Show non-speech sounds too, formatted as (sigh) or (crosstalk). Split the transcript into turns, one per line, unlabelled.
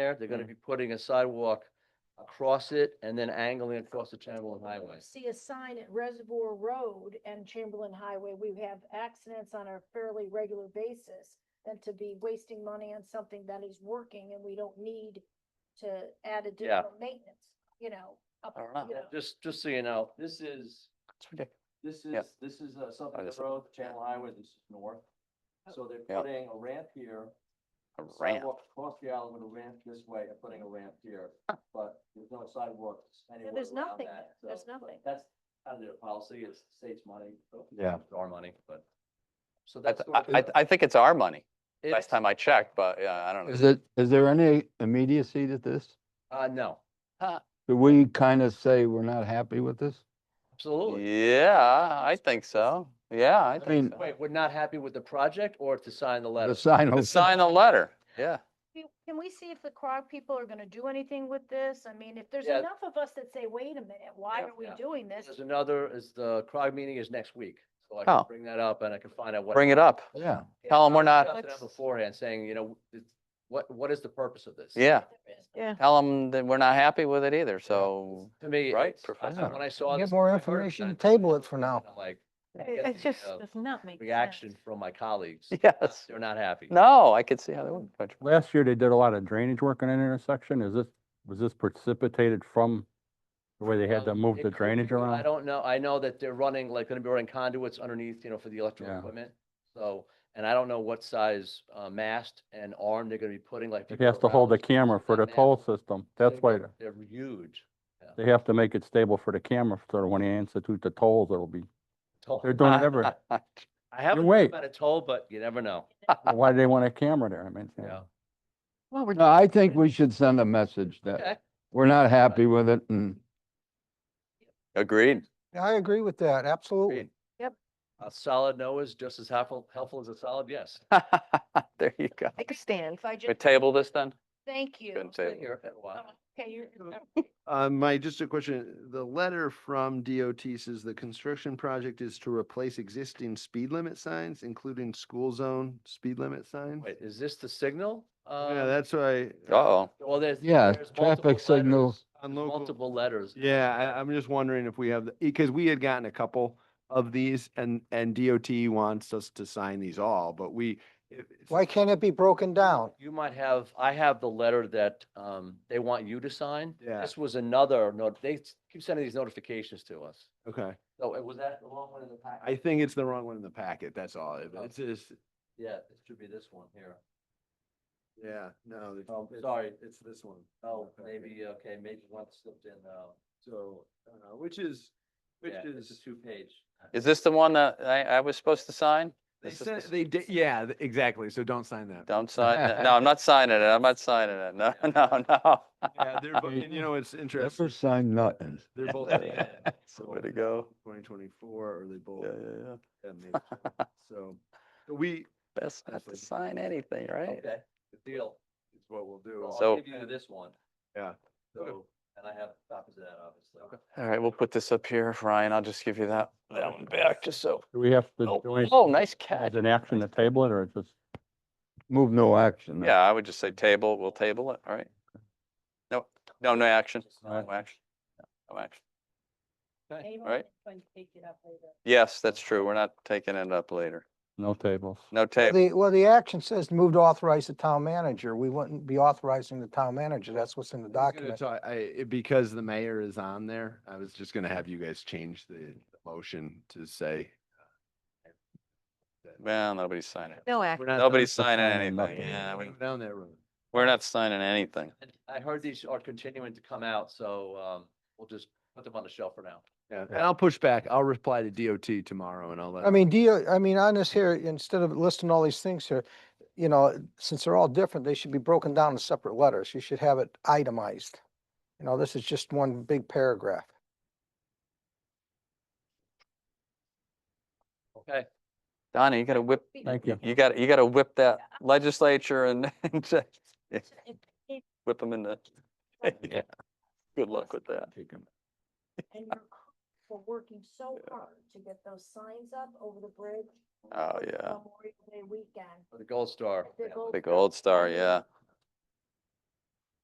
there. They're gonna be putting a sidewalk across it and then angling across the Chamberlain Highway.
See a sign at Reservoir Road and Chamberlain Highway, we have accidents on a fairly regular basis. Than to be wasting money on something that is working and we don't need to add additional maintenance, you know. up-
I don't know.
you know.
Just, just so you know, this is,
It's ridiculous.
this
Yeah.
is, this is uh, Suffolk
just-
Road, Channel Highway, this is north. So they're
Oh. Yeah.
putting a ramp here,
A
a
ramp.
sidewalk across the island with a ramp this way, and putting a ramp here, but there's no sidewalks anywhere
there's
around
nothing
that,
there. There's
so, but
nothing.
That's out of their policy, it's the state's money. so
Yeah.
it's Our money, but, so
I,
that's.
th- I, I th- I think it's our money. Last time I checked, but yeah, I don't know.
Is it, is there any immediacy to this?
Uh, no,
Do we kind of say we're not happy with this?
absolutely.
Yeah, I think so. Yeah, I think
mean-
so.
Wait, we're not happy with the project or to sign the letter?
The sign.
To
will-
Sign the letter. Yeah.
Can- Can we see if the CROG people are gonna do anything with this? I mean, if there's
Yeah.
enough of us that say, wait a minute, why
Yeah.
are we
Yeah.
doing this?
There's another, is the CROG meeting is next week, so I can
Oh.
bring that up and I can find out what.
Bring it up.
Yeah,
Yeah,
tell 'em we're
I
not-
discussed it out Beforehand, saying, you know, it's- what, what is the purpose of this?
Yeah.
Yeah.
Tell them that we're not happy with it either. So
To me,
Right,
it's- I-
Professor.
when I saw
Get
this.
more
when I heard it,
information,
I-
table it for now.
I'm Like,
It
get
it
the,
just
uh,
does not make sense.
reaction from my colleagues.
yes,
They're not happy.
no, I could see how they wouldn't. touch it.
Last year, they did a lot of drainage work on that intersection. Is this, was this precipitated from the way they had to
Um,
move
it
the
could
drainage
be, I
around?
don't know. I know that they're running, like, gonna be running conduits underneath, you know, for the electrical
Yeah.
equipment. So, and I don't know what size, uh, mast and arm they're gonna be putting, like.
It
people
has to hold the
around
camera for
that
the
mast
toll system. That's
thing,
why
but They're huge.
they have to make it stable for the camera, so that when they institute the tolls, it'll be,
Toll-
they're doing it every,
I haven't
wait.
heard about a toll, but you never know,
why do they want a camera there? I mean,
you
yeah.
know.
Well, we're
no, I think we should send a message that
Okay.
we're not happy with it and
(laughs) Agreed.
I agree with that, absolutely.
Agreed.
A solid no is just as helpful, helpful as a solid yes.
(laughs)
There you go.
take a stand.
If I
We
just,
table this then?
thank
Go ahead
you.
and table. it.
Here, a while.
Oh, Okay, you're,
Uh, my, just a question, the letter from DOT says the construction project is to replace existing speed limit signs, including school zone speed limit signs?
Wait, is this the signal?
Yeah,
Um,
that's why,
Uh-oh.
Well, there's.
yeah,
there's multiple
traffic signals.
letters.
on
There's
local,
Multiple letters.
yeah, I, I'm just wondering if we have, because we had gotten a couple of these and, and DOT wants us to sign these all, but we. if- if-
Why can't it be broken down?
You might have, I have the letter that um they want you to sign.
Yeah.
This was another note, they s- keep sending these notifications to us.
Okay,
So it Oh, was that the wrong one in the packet?
I think it's the wrong one in the packet, that's all. It-
Oh.
It's just,
Yeah, it should be this one here.
yeah, no. uh, it's-
Oh,
it's-
sorry.
It's this one.
Oh,
Okay.
maybe, okay, maybe one slipped in uh
So, uh, which is, which
Yeah, it's
is.
a two page. (laughs)
Is this the one that I, I was supposed to sign?
They
This is
said,
the-
they did, yeah, th- exactly. So don't sign that. (laughs)
Don't sign that. No, I'm not signing it. I'm not signing it. No, (laughs) no, no.
Yeah,
(laughs)
they're, bo- and you know, it's
Never
interesting.
sign nothing.
(laughs) They're both.
So way to go.
Twenty twenty-four, or they both.
Yeah, yeah, yeah.
yeah, maybe (laughs) so. So so we,
Best not to
Absolutely.
sign anything, right?
Okay, good deal.
it's what we'll do.
Well, I'll
So-
give you this one.
Yeah.
So, and I have copies of that, obviously.
All right, we'll put this up here. Ryan, I'll just give you that, that one back, just so.
Do we have to?
Oh,
do anything
oh, nice
As
catch.
an action to table it, or it's just?
Move no action.
Yeah, I would just say table, we'll table it, all right? No, no, no action, no action, no action. Right. Yes, that's true. We're not taking it up later.
No tables.
No table.
The, well, the action says move to authorize the town manager. We wouldn't be authorizing the town manager. That's what's in the
I was gonna
document.
ta- I, it- because the mayor is on there, I was just gonna have you guys change the motion to say.
Well, nobody's signing.
No
we're
action.
not-
Nobody's signing
signing
anything.
nothing.
Yeah, we,
Down that road.
we're not signing anything.
And I heard these are continuing to come out, so um we'll just put them on the shelf for now.
Yeah, and I'll push back. I'll reply to DOT tomorrow and I'll let.
I mean, do you, I mean, on this here, instead of listing all these things here, you know, since they're all different, they should be broken down in separate letters. You should have it itemized. You know, this is just one big paragraph.
Okay,
Donnie, you gotta whip,
Thank you.
you gotta, you gotta whip that legislature and (laughs) and just whip them in the. (laughs) Yeah. Good luck with that.
and your crew for working so hard to get those signs up over the bridge.
Oh,
for
yeah.
Memorial Day weekend.
for the gold star.
The
family.
Gold
Big
Star
old star,
family,
yeah.